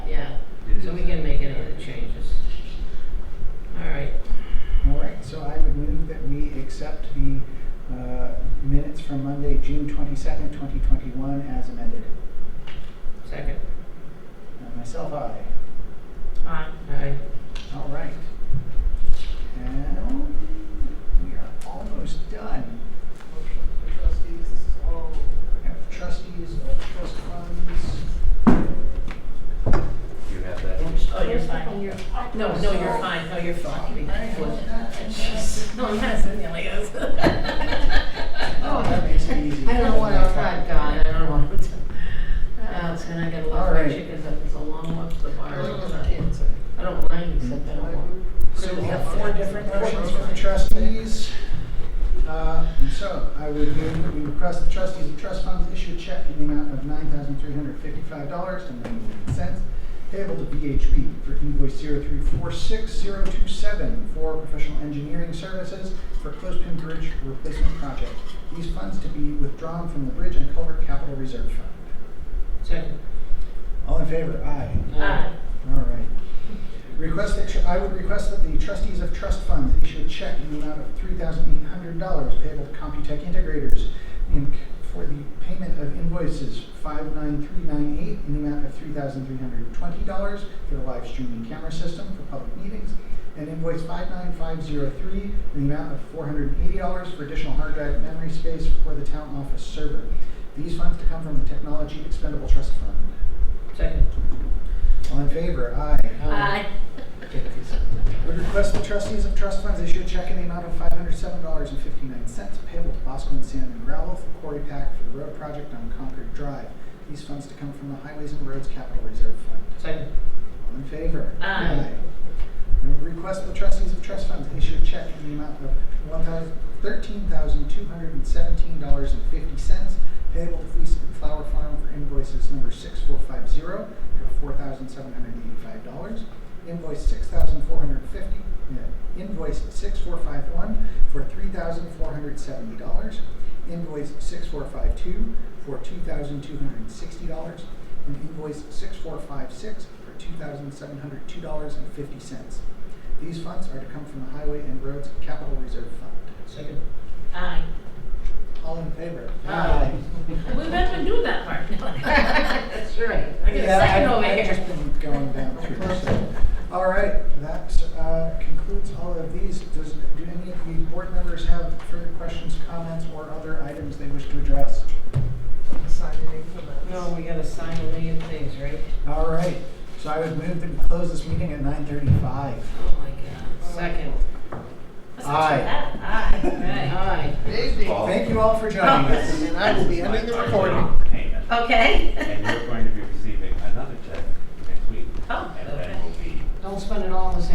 for uh, Monday, June twenty-second, twenty twenty-one as amended. Second. And myself, aye. Aye. Aye. All right. Now, we are almost done. Motion for trustees, this is all, We have trustees of trust funds. You have that. Oh, you're fine. No, no, you're fine. No, you're Sorry, fine. I had that. Jeez. No, I'm kind of sitting there like this. Oh, that makes it easy. I don't want to, oh, God, I don't want to. Oh, it's gonna Uh-huh. get a lot All of right. chickens up. It's a long walk to the bar. I don't know, it's a- I don't mind, except I don't want. So we have four different motions for the trustees. Uh, and So I would move that we request the trustees of trust funds issue a check in the amount of nine thousand three hundred fifty-five dollars and ninety-eight cents payable to VHB for invoice zero three four six zero two seven for professional engineering services for Closepin Bridge replacement project. These funds to be withdrawn from the Bridge and Culvert Capital Reserve Fund. Second. All in favor? Aye. Aye. All right. Request that, tr- I would request that the trustees of trust funds issue a check in the amount of three thousand eight hundred dollars payable to Computech Integrators Inc. for the payment of invoices five nine three nine eight in the amount of three thousand three hundred twenty dollars for the live streaming camera system for public meetings, and invoice five nine five zero three in the amount of four hundred eighty dollars for additional hard drive memory space for the town office server. These funds to come from the Technology Expendable Trust Fund. Second. All in favor? Aye. Aye. Would request the trustees of trust funds issue a check in the amount of five hundred seven dollars and fifty-nine cents payable to Bosco and Sand and Gravel for quarry pack for the road project on Concord Drive. These funds to come from the Highways and Roads Capital Reserve Fund. Second. All in favor? Aye. And would request the trustees of trust funds issue a check in the amount of one thousand, thirteen thousand two hundred and seventeen dollars and fifty cents payable to Fleece and Flower Farm for invoices number six four five zero for four thousand seven hundred and eighty-five dollars. Invoice six thousand four hundred fifty, yeah, invoice six four five one for three thousand four hundred seventy dollars. Invoice six four five two for two thousand two hundred and sixty dollars. And invoice six four five six for two thousand seven hundred two dollars and fifty cents. These funds are to come from the Highway and Roads Capital Reserve Fund. Second. Aye. All in favor? Aye. We better do that part. That's right. I get a Yeah, second I've- over I've here. just been going down through, so. All right, that uh, concludes all of these. Does, do any of the board members have further questions, comments, or other items they wish to address? sign the name for that. No, we gotta sign a million things, right? All right, so I would move that we close this meeting at nine thirty-five. Oh, my God. Second. Aye. Aye. Aye. Maybe. Paul. Thank you all for joining us. And I will be ending the recording. Payment. Okay. And you're going to Oh, be